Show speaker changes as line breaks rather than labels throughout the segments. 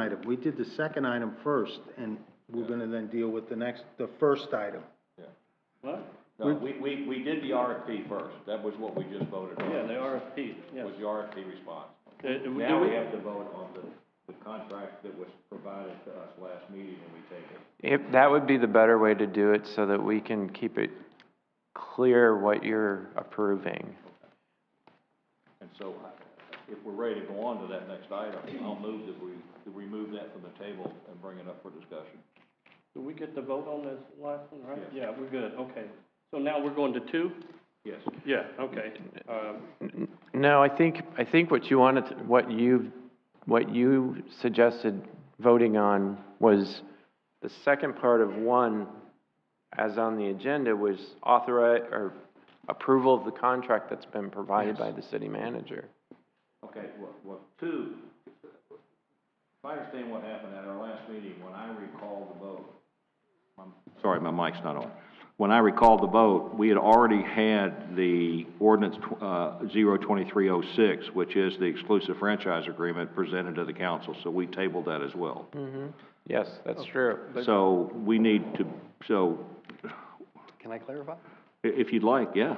item. We did the second item first, and we're gonna then deal with the next, the first item.
Yeah.
What?
No, we, we, we did the RFP first, that was what we just voted on.
Yeah, the RFP, yes.
Was the RFP response.
Uh, do we-
Now we have to vote on the, the contract that was provided to us last meeting and we take it.
If, that would be the better way to do it so that we can keep it clear what you're approving.
And so I- if we're ready to go on to that next item, I'll move that we, to remove that from the table and bring it up for discussion.
Did we get the vote on this last one, right?
Yes.
Yeah, we're good, okay. So now we're going to two?
Yes.
Yeah, okay. Um,
N- No, I think, I think what you wanted, to- what you, what you suggested voting on was the second part of one, as on the agenda, was authori, or approval of the contract that's been provided by the city manager.
Okay, well, well, two, if I understand what happened at our last meeting, when I recall the vote, I'm sorry, my mic's not on. When I recall the vote, we had already had the ordinance, tw- uh, zero twenty-three oh six, which is the exclusive franchise agreement presented to the council, so we tabled that as well.
Hmm.
Yes, that's true.
So we need to, so,
Can I clarify?
i- if you'd like, yeah.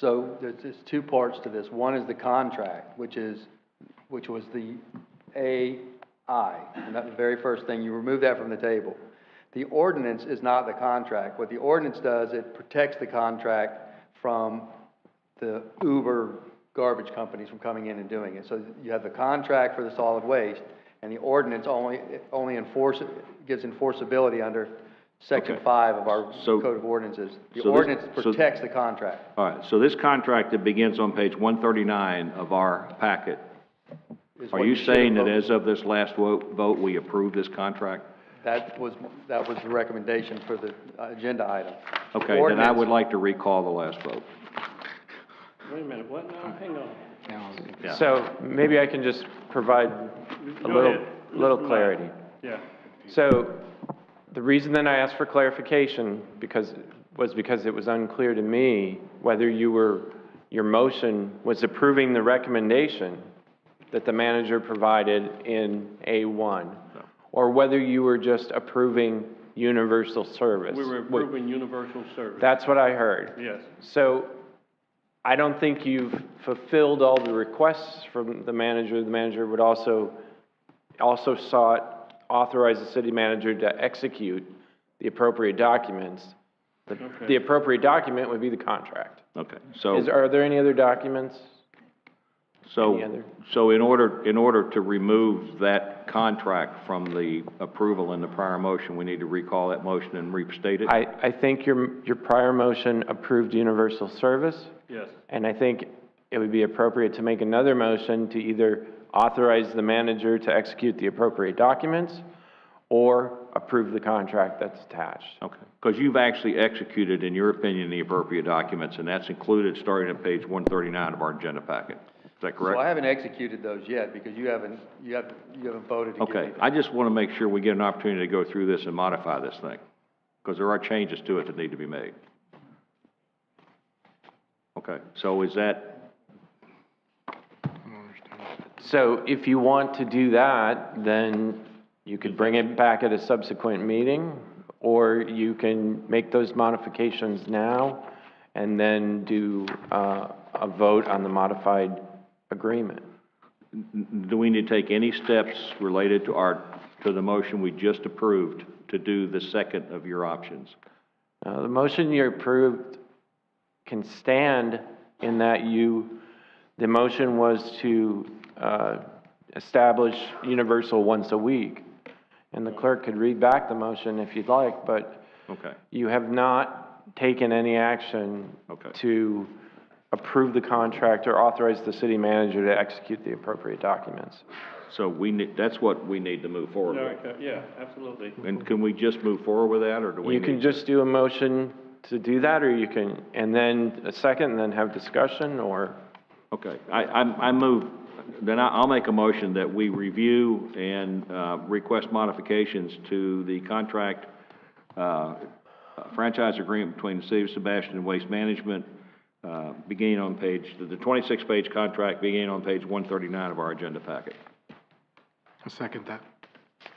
So there's, there's two parts to this. One is the contract, which is, which was the AI, and that's the very first thing. You remove that from the table. The ordinance is not the contract. What the ordinance does, it protects the contract from the Uber garbage companies from coming in and doing it. So you have the contract for the solid waste, and the ordinance only, only enforce, gives enforceability under section
Okay.
five of our
So-
code of ordinances. The
so this-
ordinance
so-
protects the contract.
All right, so this contract that begins on page one thirty-nine of our packet,
is
Are
what
you
should have
saying that
voted.
as of this last wo- vote, we approve this contract?
That was, that was the recommendation for the uh, agenda item.
Okay, then I would like to recall the last vote.
Wait a minute, what now? Hang on.
Yeah.
So maybe I can just provide a
Go
little,
ahead.
little
Mr. Meyer.
clarity.
Yeah.
So, the reason that I asked for clarification because, was because it was unclear to me whether you were, your motion was approving the recommendation that the manager provided in A1, or whether you were just approving universal service.
We were approving universal service.
That's what I heard.
Yes.
So I don't think you've fulfilled all the requests from the manager. The manager would also, also sought, authorize the city manager to execute the appropriate documents. The- The
Okay.
appropriate document would be the contract.
Okay, so,
Is, are there any other documents? any
so,
other-
so in order, in order to remove that contract from the approval in the prior motion, we need to recall that motion and restate it?
I, I think your, your prior motion approved universal service.
Yes.
And I think it would be appropriate to make another motion to either authorize the manager to execute the appropriate documents or approve the contract that's attached.
Okay, because you've actually executed, in your opinion, the appropriate documents, and that's included starting at page one thirty-nine of our agenda packet. Is that
So I
correct?
haven't executed those yet, because you haven't, you haven't, you haven't voted to give
Okay,
me.
I just want to make sure we get an opportunity to go through this and modify this thing, because there are changes to it that need to be made. Okay, so is that,
So if you want to do that, then you could bring it back at a subsequent meeting, or you can make those modifications now and then do, uh, a vote on the modified agreement.
do we need to take any steps related to our, to the motion we just approved to do the second of your options?
Uh, the motion you approved can stand in that you, the motion was to, uh, establish universal once a week. And the clerk could read back the motion if you'd like, but
Okay,
you have not taken any action
Okay.
to approve the contract or authorize the city manager to execute the appropriate documents.
so we need, that's what we need to move forward with.
Erica, yeah, absolutely.
And can we just move forward with that, or do we
You
need?
can just do a motion to do that, or you can, and then a second, and then have discussion, or?
Okay, I, I, I move, then I, I'll make a motion that we review and, uh, request modifications to the contract, uh, franchise agreement between the City of Sebastian and Waste Management, uh, beginning on page, the twenty-six page contract beginning on page one thirty-nine of our agenda packet.
I second that.